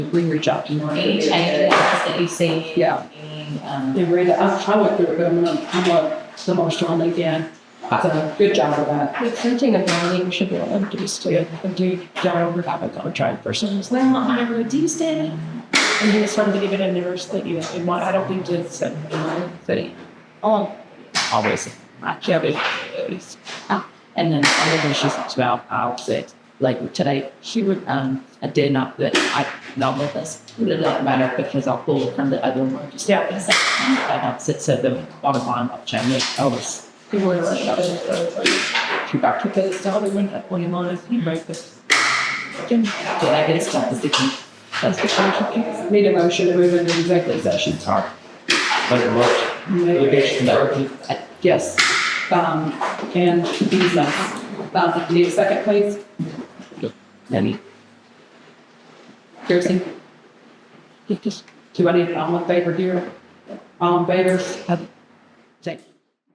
reach out to Mark. Any changes that you see? Yeah. Any, um, They read, I, I went through it, but I'm, gonna- I'm gonna, the most on again. So, good job for that. Recruiting a non should be allowed to be still, and do job or have a contract person. Well, I reduced it. And he was trying to give it a university, you know, I don't think it's in my city. Oh, always, I can't be. it's- ah. And then the other thing she talks about, I'll say, like today, she would, um, I did not, that I, not with us, it did not matter because I'll pull it from the other one. Just, yeah, it's like, I don't sit, so the bottom line, I'll change it, always. People were like, "Oh, uh, too back to the start of winter when you're minus you break this. Again, did I get stuck with the key? That's the function. Need a motion to move into executive session. Sorry. Make a motion. Litigation directly. Yes, um, and business. Um, need a second, please? Then Kirsten, you just do I need an all in favor here? All in favor? have Say.